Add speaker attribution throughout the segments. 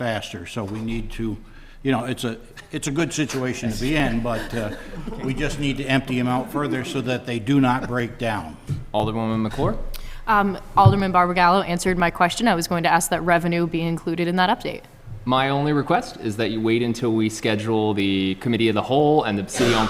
Speaker 1: faster, so we need to, you know, it's a, it's a good situation to be in, but uh, we just need to empty them out further so that they do not break down.
Speaker 2: Alderwoman McClure?
Speaker 3: Um, Alderman Barbagallo answered my question. I was going to ask that revenue be included in that update.
Speaker 2: My only request is that you wait until we schedule the Committee of the Whole and the City-Owned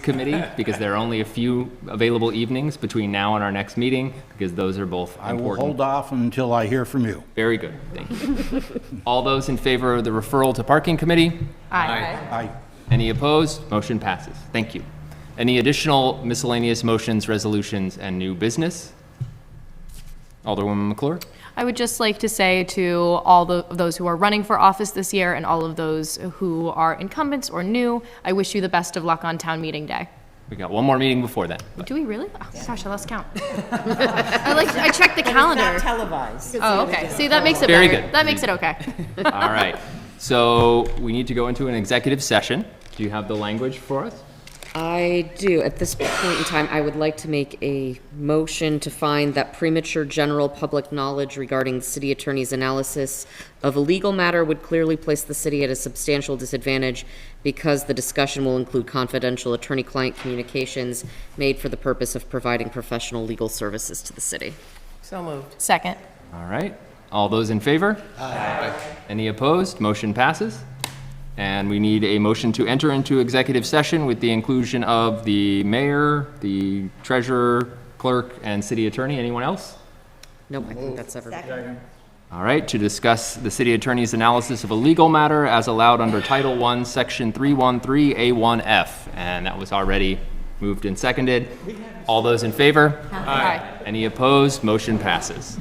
Speaker 2: Committee, because there are only a few available evenings between now and our next meeting, because those are both
Speaker 1: I will
Speaker 2: important.
Speaker 1: hold off until I hear from you.
Speaker 2: Very good, thank you. All those in favor of the referral to Parking Committee?
Speaker 3: Aye.
Speaker 1: I,
Speaker 2: Any opposed? Motion passes. Thank you. Any additional miscellaneous motions, resolutions, and new business? Alderwoman McClure?
Speaker 3: I would just like to say to all the, those who are running for office this year and all of those who are incumbents or new, I wish you the best of luck on town meeting day.
Speaker 2: We got one more meeting before then.
Speaker 3: Do we really? Oh, gosh, I lost count. I like, I checked the calendar.
Speaker 4: It's not televised.
Speaker 3: Oh, okay. See, that makes it better.
Speaker 2: Very good.
Speaker 3: That makes it okay.
Speaker 2: All right. So we need to go into an executive session. Do you have the language for us?
Speaker 4: I do. At this point in time, I would like to make a motion to find that premature general public knowledge regarding the city attorney's analysis of a legal matter would clearly place the city at a substantial disadvantage because the discussion will include confidential attorney-client communications made for the purpose of providing professional legal services to the city.
Speaker 3: Second.
Speaker 2: All right. All those in favor? Aye. Any opposed? Motion passes. And we need a motion to enter into executive session with the inclusion of the mayor, the treasurer, clerk, and city attorney. Anyone else?
Speaker 4: Nope, I think that's everybody.
Speaker 2: All right, to discuss the city attorney's analysis of a legal matter as allowed under Title I, Section 313A1F. And that was already moved and seconded. All those in favor?
Speaker 3: Aye.
Speaker 2: Any opposed? Motion passes.